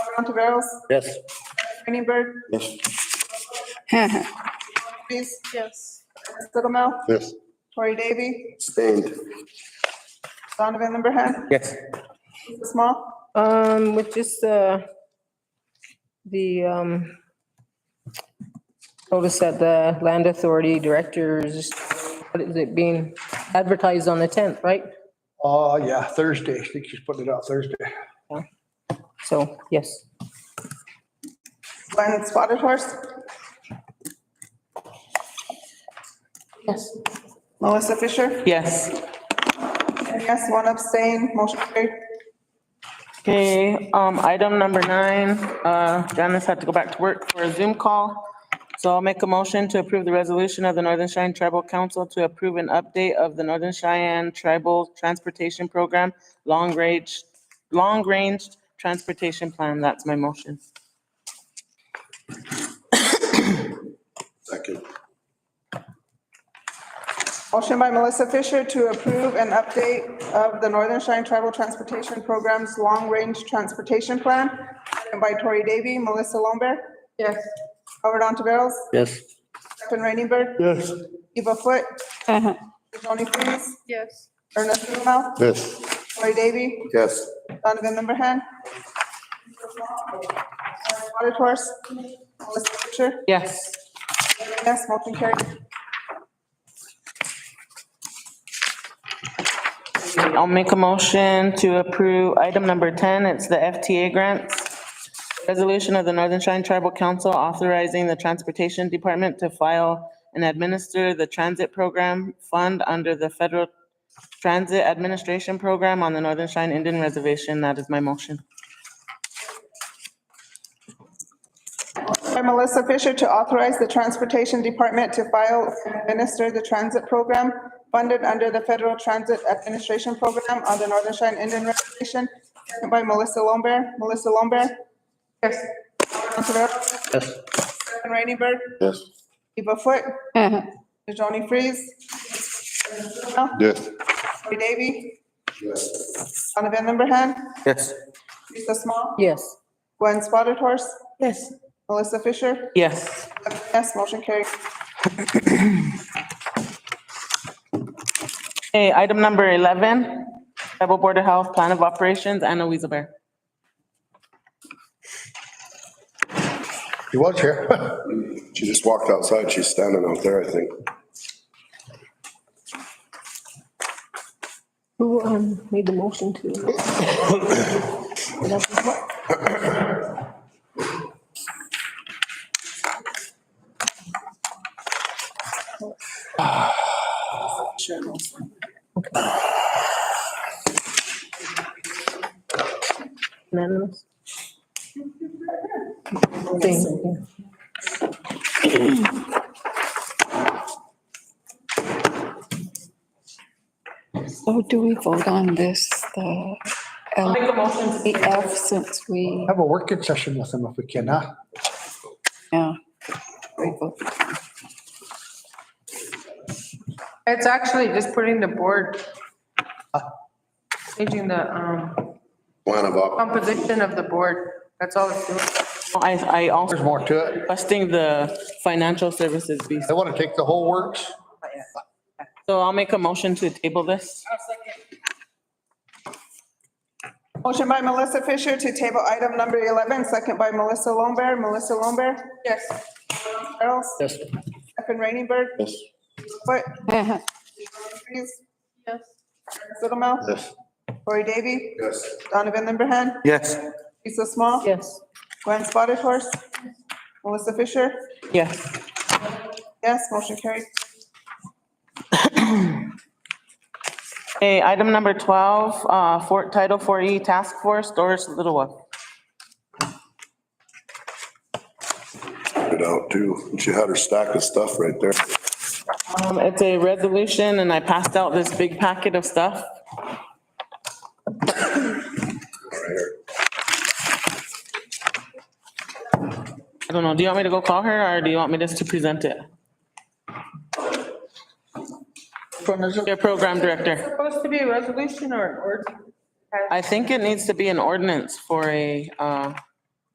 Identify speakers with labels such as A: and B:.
A: Councilman Montiveros,
B: Yes.
A: Greenberg,
B: Yes.
A: please. Yes. Sittlemouth,
B: Yes.
A: Tori Davy,
B: Stand.
A: Donovan Lumberhand,
B: Yes.
A: Lisa Small,
C: Um, with just, uh, the, um, notice that the land authority directors, what is it being advertised on the tenth, right?
D: Uh, yeah, Thursday. I think she's putting it out Thursday.
C: So, yes.
A: Glenn Spotted Horse,
C: Yes.
A: Melissa Fisher,
E: Yes.
A: and yes, one abstain, motion carried.
E: Okay, um, item number nine, uh, Janice had to go back to work for a Zoom call. So I'll make a motion to approve the resolution of the Northern Cheyenne Tribal Council to approve an update of the Northern Cheyenne Tribal Transportation Program, long range, long range transportation plan. That's my motion.
B: Second.
A: Motion by Melissa Fisher to approve an update of the Northern Cheyenne Tribal Transportation Program's Long Range Transportation Plan, seconded by Tori Davy, Melissa Lombard. Yes. Howard Montiveros,
B: Yes.
A: Stefan Rainberg,
D: Yes.
A: Eva Foote.
F: Uh-huh.
A: Tony Freeze. Yes. Ernest Sittlemouth,
B: Yes.
A: Tori Davy,
B: Yes.
A: Donovan Lumberhand. Spotted Horse, Melissa Fisher,
E: Yes.
A: yes, motion carried.
E: I'll make a motion to approve item number 10. It's the FTA grants. Resolution of the Northern Cheyenne Tribal Council authorizing the Transportation Department to file and administer the transit program fund under the Federal Transit Administration Program on the Northern Cheyenne Indian Reservation. That is my motion.
A: By Melissa Fisher to authorize the Transportation Department to file and administer the transit program funded under the Federal Transit Administration Program on the Northern Cheyenne Indian Reservation. Second By Melissa Lombard, Melissa Lombard. Yes. Councilor
B: Yes.
A: Rainey Bird,
B: Yes.
A: Eva Foote.
F: Uh-huh.
A: Joni Freeze.
B: Yes.
A: Troy Davy,
B: Yes.
A: Donovan Lumberhand,
B: Yes.
A: Lisa Small,
C: Yes.
A: Gwen Spotted Horse,
C: Yes.
A: Melissa Fisher.
E: Yes.
A: Yes, motion carried.
E: Okay, item number 11, Tribal Board of Health Plan of Operations, Anna Weaselbear.
B: She was here. She just walked outside. She's standing out there, I think.
C: Who, um, made the motion to? Unanimous? Thing, yeah.
F: So do we vote on this, the LEF since we,
D: Have a working session with them if we can, huh?
F: yeah. we vote.
G: It's actually just putting the board, changing the um,
B: Plan of op.
G: composition of the board. That's all it's doing.
E: I, I
D: There's
E: also
D: more to it.
E: requesting the financial services piece.
D: They want to take the whole works.
E: So I'll make a motion to table this.
A: Motion by Melissa Fisher to table item number 11, second by Melissa Lombard. Melissa Lombard? Yes. Charles?
B: Yes.
A: Stefan Rainey Bird?
B: Yes.
A: Foot?
F: Uh-huh.
A: Freeze? Yes. Sittlemouth?
B: Yes.
A: Corey Davy?
B: Yes.
A: Donovan Lumberhand?
B: Yes.
A: Lisa Small?
C: Yes.
A: Gwen Spotted Horse? Melissa Fisher?
E: Yes.
A: Yes, motion carried.
E: Okay, item number 12, uh, for, Title 4E Task Force, Doris Littlewood.
B: It out too. She had her stack of stuff right there.
E: Um, it's a resolution and I passed out this big packet of stuff. I don't know, do you want me to go call her or do you want me just to present it? Your program director.
G: Supposed to be a resolution or an ordinance?
E: I think it needs to be an ordinance for a, uh,